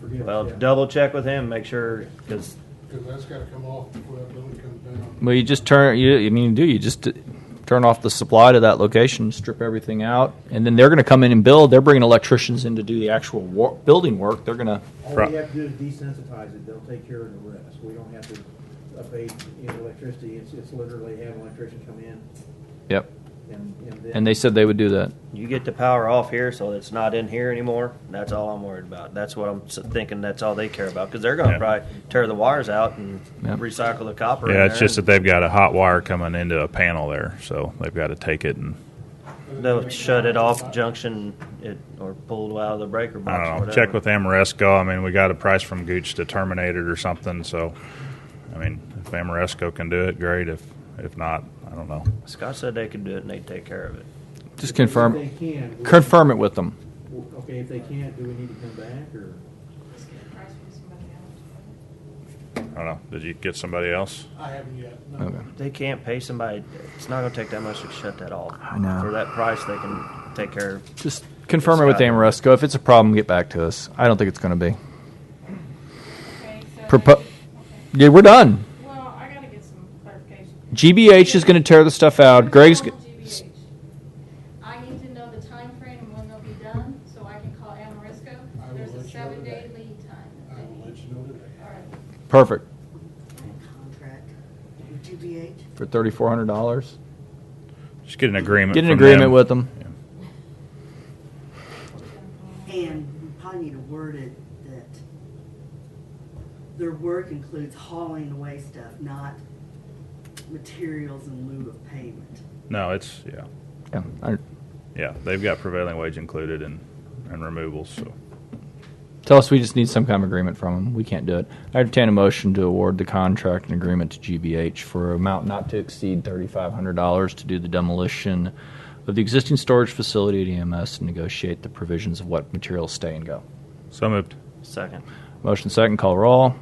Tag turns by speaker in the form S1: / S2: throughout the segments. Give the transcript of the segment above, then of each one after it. S1: forget.
S2: Well,
S1: yeah.
S2: double check with him, make sure, because
S1: Cause that's gotta come off before that building comes down.
S3: Well, you just turn. You, I mean, you do you just t- turn off the supply to that location, strip everything out, and then they're going to come in and build. They're bringing electricians in to do the actual war- building work. They're going to.
S4: All
S5: Right.
S4: we have to do is desensitize it, they'll take care of the rest, we don't have to abate you know, electricity, it's, it's literally have an electrician come in
S3: Yep.
S4: and, and then.
S3: And they said they would do that.
S2: you get the power off here, so it's not in here anymore. That's all I'm worried about. That's what I'm s- thinking, that's all they care about, because they're gonna
S5: Yeah.
S2: probably tear the wires out and
S3: Yeah.
S2: recycle the copper in
S5: Yeah, it's
S2: there.
S5: just that they've got a hot wire coming into a panel there, so they've got to take it and
S2: They'll shut it off junction, it, or pulled out of the breaker box
S5: I
S2: or
S5: don't know.
S2: whatever.
S5: Check with Amoresco. I mean, we got a price from Gooch to terminate it or something. So, I mean, if Amoresco can do it, great. If if not, I don't know.
S2: Scott said they could do it and they'd take care of it.
S3: Just
S4: If
S3: confirm.
S4: They can. we-
S3: Confirm it with them.
S4: Okay, if they can't, do we need to come back, or?
S6: Let's get a price from somebody else.
S5: I don't know. Did you get somebody else?
S1: I haven't yet, no.
S3: Okay.
S2: They can't pay somebody, it's not gonna take that much to shut that off.
S3: I know.
S2: For that price, they can take care of
S3: Just confirm it with
S2: Scott.
S3: Amoresco. If it's a problem, get back to us. I don't think it's going to be.
S6: Okay, so
S3: Propo-
S6: they- okay.
S3: Yeah, we're done.
S6: Well, I gotta get some clarification.
S3: GBH is going to tear the stuff out. Greg's.
S6: Call
S3: G-
S6: GBH. I need to know the timeframe and when they'll be done, so I can call Amoresco.
S1: I will
S6: There's
S1: let
S6: a
S1: you know
S6: seven-day
S1: today.
S6: lead time.
S1: I
S6: that they
S1: will let
S6: need.
S1: you know today.
S6: All right.
S3: Perfect
S7: Contract with GBH.
S3: for thirty four hundred dollars.
S5: Just get an agreement.
S3: Get an
S5: from
S3: agreement
S5: them.
S3: with them.
S7: And we probably need to word it that their work includes hauling away stuff, not materials in lieu of payment.
S5: No, it's yeah,
S3: Yeah. I-
S5: yeah. They've got prevailing wage included and and removals. So
S3: Tell us we just need some kind of agreement from them. We can't do it. I entertain a motion to award the contract and agreement to GBH for an amount not to exceed $3,500 to do the demolition of the existing storage facility at EMS and negotiate the provisions of what materials stay and go.
S5: so moved.
S2: second.
S3: Motion second, call roll.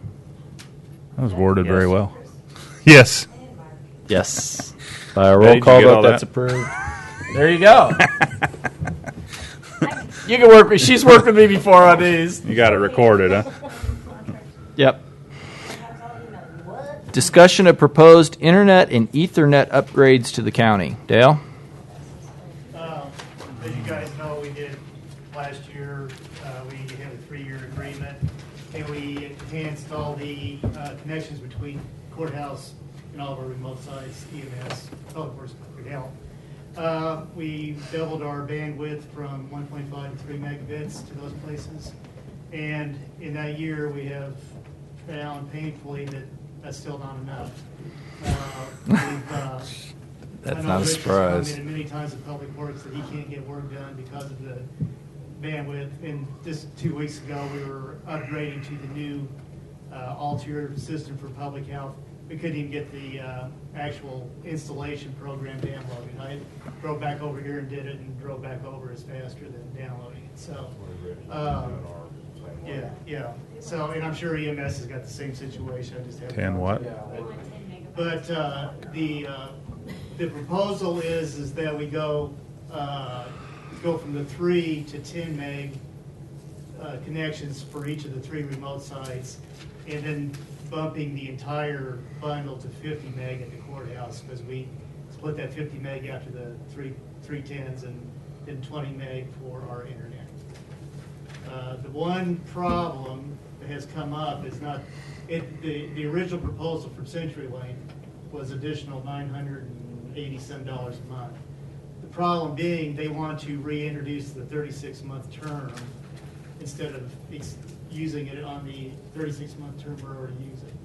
S5: That was worded very
S2: Yes.
S5: well. Yes.
S3: Yes. By a
S5: Hey,
S3: roll
S5: did you
S3: call
S5: get
S3: vote,
S5: all that?
S3: that's approved. There you go. you can work. She's worked with me before on these.
S5: You got it recorded, huh?
S3: Yep. Discussion of proposed internet and ethernet upgrades to the county. Dale?
S8: Um, As you guys know, we did last year, uh, we had a three-year agreement, and we enhanced all the uh, connections between courthouse and all of our remote sites, E EMS, public works, public health. Uh, We doubled our bandwidth from 1.5 to 3 megabits to those places. And in that year, we have found painfully that that's still not enough. Uh, we've, uh,
S3: That's
S8: I know
S3: not a
S8: Rich has
S3: surprise.
S8: commented many times in public works that he can't get work done because of the bandwidth. And just two weeks ago, we were upgrading to the new uh, all-tier system for public health. We couldn't even get the uh, actual installation program downloaded. I drove back over here and did it, and drove back over is faster than downloading it, so. um, Yeah, yeah. So, and I'm sure EMS has got the same situation, I just haven't.
S5: Ten what?
S8: But uh, the, uh, the proposal is, is that we go, uh, go from the three to 10 meg uh, connections for each of the three remote sites, and then bumping the entire bundle to 50 meg at the courthouse, because we split that 50 meg after the three, three tens, and then 20 meg for our internet. Uh, The one problem that has come up is not, it, the, the original proposal from CenturyLink was additional nine hundred and eighty-seven dollars a month. The problem being, they want to reintroduce the thirty-six month term instead of ex- using it on the thirty-six month term we're already using.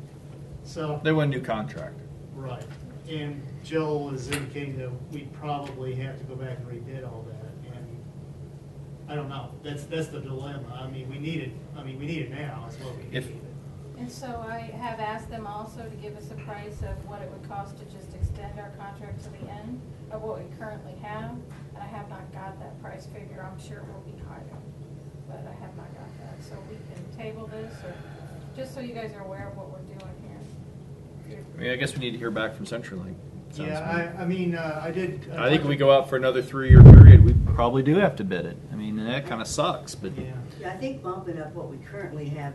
S8: So.
S3: want a new contract.
S8: Right, and Joel is indicating that we probably have to go back and redid all that, and I don't know, that's, that's the dilemma, I mean, we need it, I mean, we need it now, is what we
S3: If-
S8: need.
S6: And so I have asked them also to give us a price of what it would cost to just extend our contract to the end of what we currently have. And I have not got that price figure. I'm sure it will be higher, but I have not got that. So we can table this or, just so you guys are aware of what we're doing here.
S9: I mean, I guess we need to hear back from CenturyLink. Sounds
S8: Yeah, I, I mean, uh, I did.
S9: good. I think if we go out for another three-year period, we probably do have to bid it. I mean, and that kind of sucks, but
S8: Yeah.
S7: Yeah, I think bumping up what we currently have